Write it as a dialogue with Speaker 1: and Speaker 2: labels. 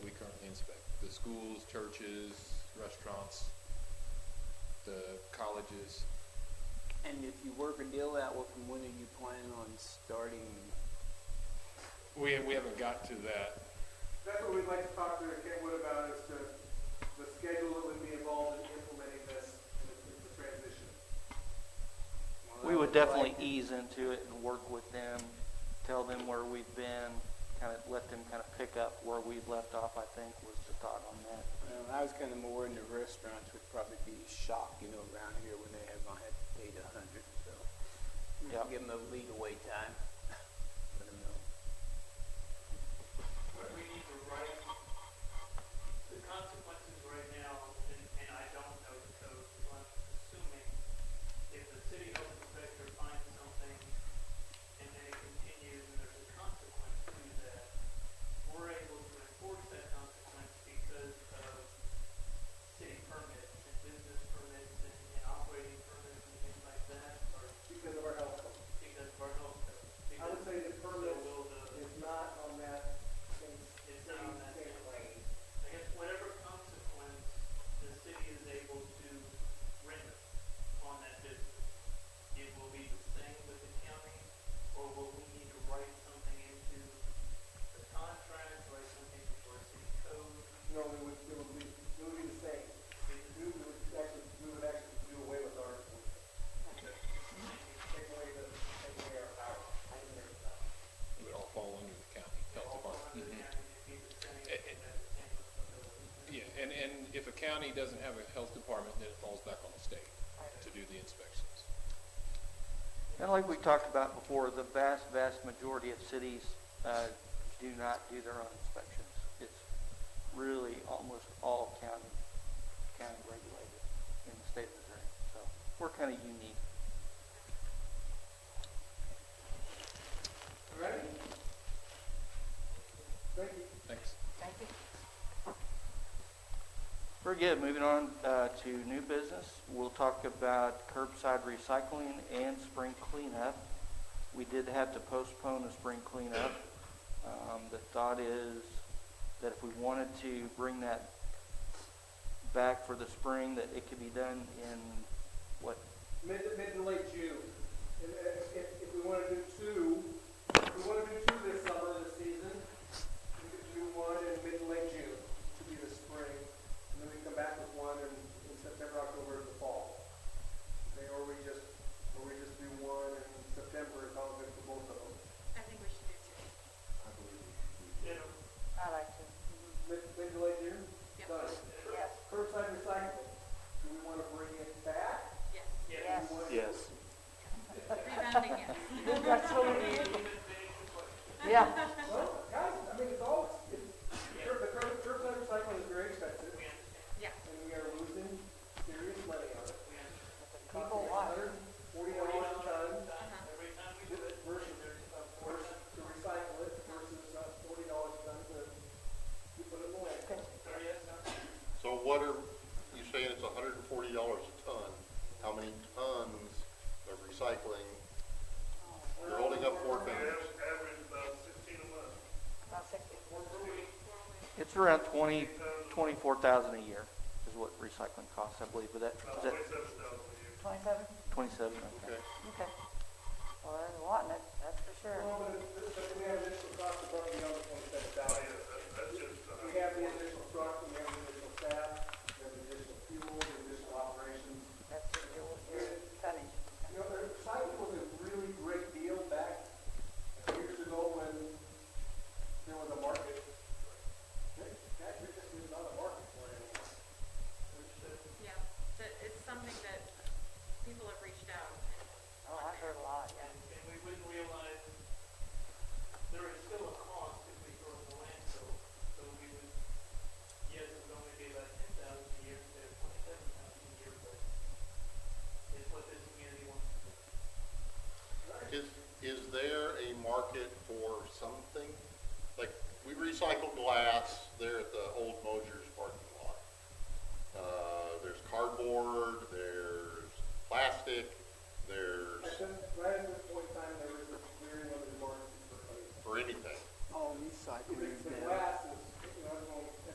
Speaker 1: schools, churches, restaurants, the colleges.
Speaker 2: And if you work a deal out with them, when are you planning on starting?
Speaker 1: We, we haven't got to that.
Speaker 3: That's what we'd like to talk to Kentwood about, is the, the schedule that would be involved in implementing this, in the- in the transition.
Speaker 4: We would definitely ease into it and work with them, tell them where we've been, kind of let them kind of pick up where we've left off, I think, was the thought on that.
Speaker 2: Well, Um, I was kind of more into restaurants would probably be shocked, you know, around here when they have, I had paid a hundred, so.
Speaker 4: Yep.
Speaker 2: Give them a lead away time. Let 'em know.
Speaker 5: But we need to write the consequences right now, and, and I don't know the code, so I'm assuming if the city health inspector finds something and then it continues and there's a consequence to that, we're able to enforce that consequence because of city permits and business permits and, and operating permits and things like that, or
Speaker 3: Because of our health code.
Speaker 5: because of our health code.
Speaker 3: I would say the permit
Speaker 5: Because will the-
Speaker 3: is not on that same,
Speaker 5: It's not
Speaker 3: same,
Speaker 5: on that
Speaker 3: same
Speaker 5: same
Speaker 3: plane.
Speaker 5: I guess whatever consequence the city is able to render on that business, it will be the same with the county, or will we need to write something into the contract, write something into our city code?
Speaker 3: No, we would, it would be, it would be the same. We would actually, we would actually do away with our, take away the, take away our power. Take away our power.
Speaker 1: It would all fall under the county health
Speaker 5: All
Speaker 1: department.
Speaker 5: under the county, it'd be the same,
Speaker 1: Mm-hmm. Eh, eh.
Speaker 5: that's the same responsibility.
Speaker 1: Yeah, eh. and, and if a county doesn't have a health department, then it falls back on the state to do the inspections.
Speaker 4: And like we talked about before, the vast, vast majority of cities uh, do not do their own inspections. It's really almost all county, county regulated in the state of Missouri. So we're kind of unique.
Speaker 3: All right? Thank you.
Speaker 1: Thanks.
Speaker 4: Very good. Moving on uh, to new business, we'll talk about curbside recycling and spring cleanup. We did have to postpone the spring cleanup. Um, The thought is that if we wanted to bring that back for the spring, that it could be done in, what,
Speaker 3: Mid, to- mid to late June. And uh, if, if, if we wanna do two, if we wanna do two this summer, this season, we could do one in mid to late June, to be the spring. And then we come back with one in, in September, October, the fall. Okay, or we just, or we just do one in September, it's all good for both of them.
Speaker 6: I think we should do two.
Speaker 5: Yeah,
Speaker 7: I like to.
Speaker 3: Mid, mid to late June?
Speaker 6: Yep.
Speaker 3: Done.
Speaker 7: Yes.
Speaker 3: Curbside recycling, do we wanna bring it back?
Speaker 6: Yes.
Speaker 5: yeah,
Speaker 8: Yes.
Speaker 7: Yes.
Speaker 6: Rebounding, yes.
Speaker 7: That's what we need.
Speaker 5: even big, but
Speaker 7: Yeah.
Speaker 3: Well, guys, I mean, it's all, it's, cur- the cur- curbside recycling is very expensive.
Speaker 5: we understand,
Speaker 6: Yeah.
Speaker 3: and we are losing serious money on it.
Speaker 5: we understand.
Speaker 7: People Uh-huh. watch.
Speaker 3: Forty dollars a ton
Speaker 5: Every time we do it,
Speaker 3: versus, versus to recycle it versus forty dollars a ton to, to put it away.
Speaker 5: sorry, yes, sir.
Speaker 9: So what are, you saying it's hundred and forty dollars a ton? How many tons of recycling? You're holding up four fingers.
Speaker 7: About sixty.
Speaker 4: it's around 20, 24,000 a year is what recycling costs, I believe, but that, is that
Speaker 7: Twenty-seven?
Speaker 4: 27? Okay.
Speaker 9: Okay.
Speaker 7: Okay. Well, they're wanting it, that's for sure.
Speaker 3: Well, but, it- but we have additional costs above and beyond the twenty-seven thousand. We have the,
Speaker 7: Oh,
Speaker 9: Uh,
Speaker 2: Oh,